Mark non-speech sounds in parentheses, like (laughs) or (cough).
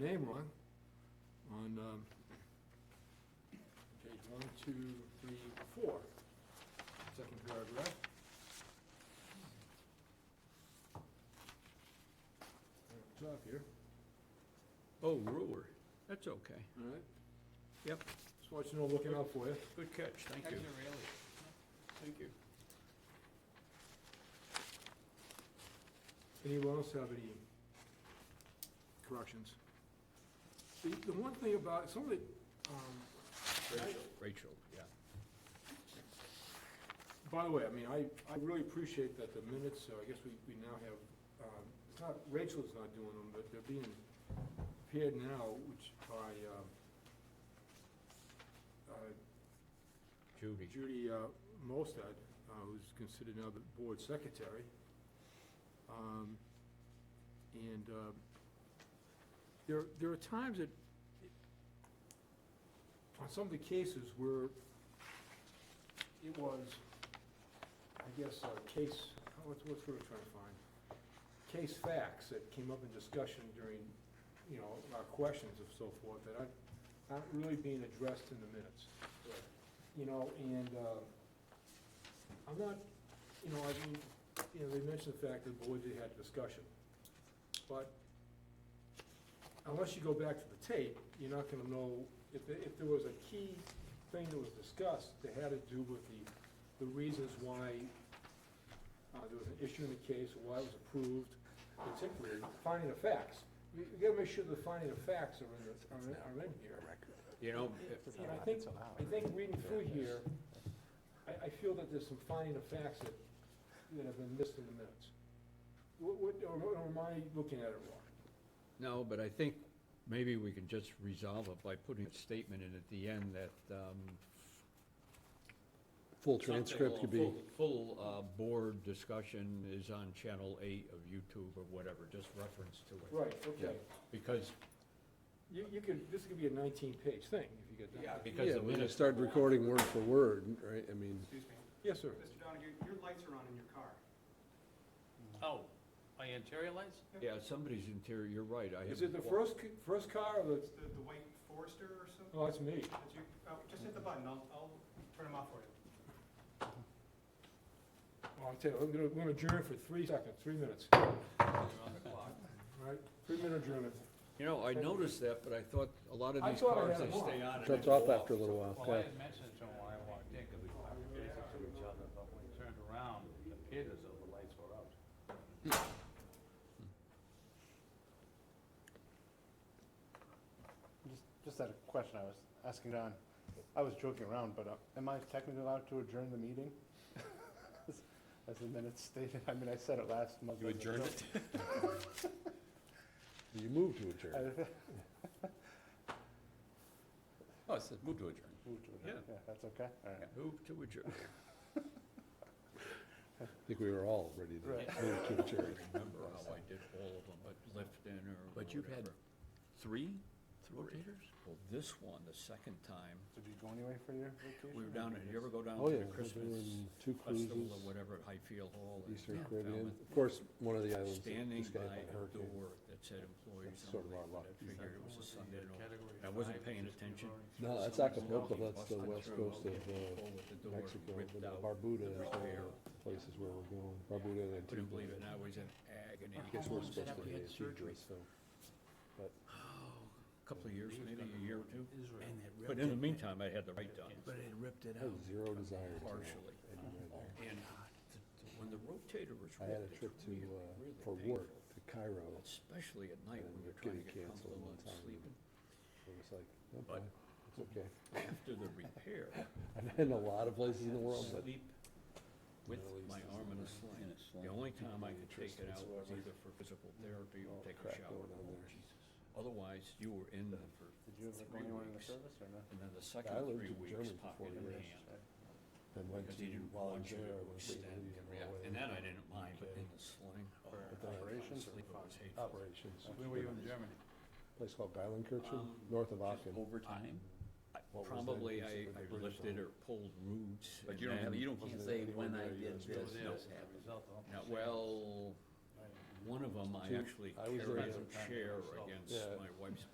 name on, on um, page one, two, three, four, second paragraph. Right Top here, Oh, Brewer, that's okay. all right? Yep. Just want you to know, I'm looking out for you. Good catch, thank you. Thank you. Anyone else have any corrections? The, the one thing about, some of the, um, Rachel, Rachel, yeah. By the way, I mean, I, I really appreciate that the minutes, uh, I guess we, we now have, um, it's not, Rachel's not doing them, but they're being paired now, which by, um, uh, Judy. Judy, uh, Mostad, uh, who's considered now the board secretary. Um, and, um, there, there are times that, on some of the cases where it was, I guess, uh, case, oh, what's, what's what we're trying to find? Case facts that came up in discussion during, you know, our questions and so forth, that aren't, aren't really being addressed in the minutes. You know, and, uh, I'm not, you know, I mean, you know, they mentioned the fact that the board did have discussion, but unless you go back to the tape, you're not gonna know, if, there- if there was a key thing that was discussed that had to do with the, the reasons why uh, there was an issue in the case, why it was approved, particularly finding of facts. You you gotta make sure the finding of facts are in, the- are in, are in here. You know, And I think, I think reading through here, I, I feel that there's some finding of facts that, that have been missed in the minutes. What, what, or or am I looking at it wrong? no, but I think maybe we can just resolve it by putting a statement in at the end that, um. Full something transcript or could be, full- Full, uh, board discussion is on channel eight of YouTube or whatever, just reference to it. Right, okay. Because, You, you could, this could be a nineteen-page thing if you get done. yeah, because yeah, the when you minutes. start recording word for word, right, I mean, Excuse me, Yes, sir. Mr. Donahue, your lights are on in your car. Oh, my (laughs) interior lights? Yeah, somebody's interior, you're right, I Is have. it the first, c- first car or the, It's the, the white Forester or something? oh, that's me. That's you, oh, just hit the button, I'll, I'll turn them off for you. Well, I'll Oh, tell you, I'm gonna, we're gonna adjourn for three seconds, three minutes, all right? Three-minute adjournment. You know, I noticed that, but I thought a lot of I these thought I had cars, them they on. stay on. and shuts they off go after a little while, Well, yeah. I had mentioned to him when I walked in, because we were facing to each other, but when we turned around, it appeared as though the lights were out. Just, just had a question I was asking Don. I was joking around, but uh, am I technically allowed to adjourn the meeting? (laughs) As- As the minutes stated, I mean, I said it last month. You adjourned it? you move to adjourn. Oh, it says move to adjourn. Yeah, that's okay, all right. Move to adjourn. I think we were all ready (laughs) to move to adjourn. remember how I did all of them, but Lifton or But you've had whatever. three rotators? Well, this one, the second time, So did you go anywhere for your vacation? we were down, at- you ever go down Oh, to yeah, we were the Christmas in two festival cruises, or whatever at Highfield Hall? in Eastern Falmouth? Caribbean, of course, one of the islands that Standing was by got hit by a hurricane. door that said employees That's sort of only, our but luck. I figured it was a Sunday. and all. Category I wasn't five, paying which is attention. No, that's Somebody's Acapulco, knocking, that's the busted west through, coast I'll of, get uh, pulled at the door, Mexico, ripped and out, Barbuda the is one repair. of the places where we're going, Barbuda and Antigua. Couldn't believe it, and I was in agony. I guess we're Almost supposed to after be he had Antigua, surgery. so, but Couple of years, maybe a year or two. Israel. But in the meantime, I had the right done. But it ripped it I had zero desire to go Partially. anywhere there. And th- th- when the rotator was I had a ripped, trip it's to, really, uh, really for painful. work to Cairo, Especially at night and when it you're trying to getting get canceled one comfortable and time, and sleeping. it was like, But- okay, it's okay. After the repair, (laughs) I've been in a lot of places in the world, but sleep with Middle East my is arm in In a a sling. sling. The only time I could take Interest it out was whatsoever. either for physical therapy or All take a crack shower. going on there. Otherwise, you were in there for, Did you ever go Three anywhere in the weeks. service or no? and then the I second lived three in weeks, Germany for pocket four in years. hand. and went Because to, they didn't while I want was you there, I to went to extend Italy and and react. Norway And that I didn't mind, but in the sling or. Oh, But then operations? Sleep, it was hateful. operations. Where were you in Germany? Place called Geilenkirchen, Um, north of Just Aachen. Overtime? I- What was that Probably piece I of the I British lifted one? or pulled roots. But you and don't have, then- you don't, can't Wasn't say there when anyone I there that did this, was there this as a happened. result of- Now, well, one of them I Two. actually I was there as carried a a- chair against Yeah. my wife's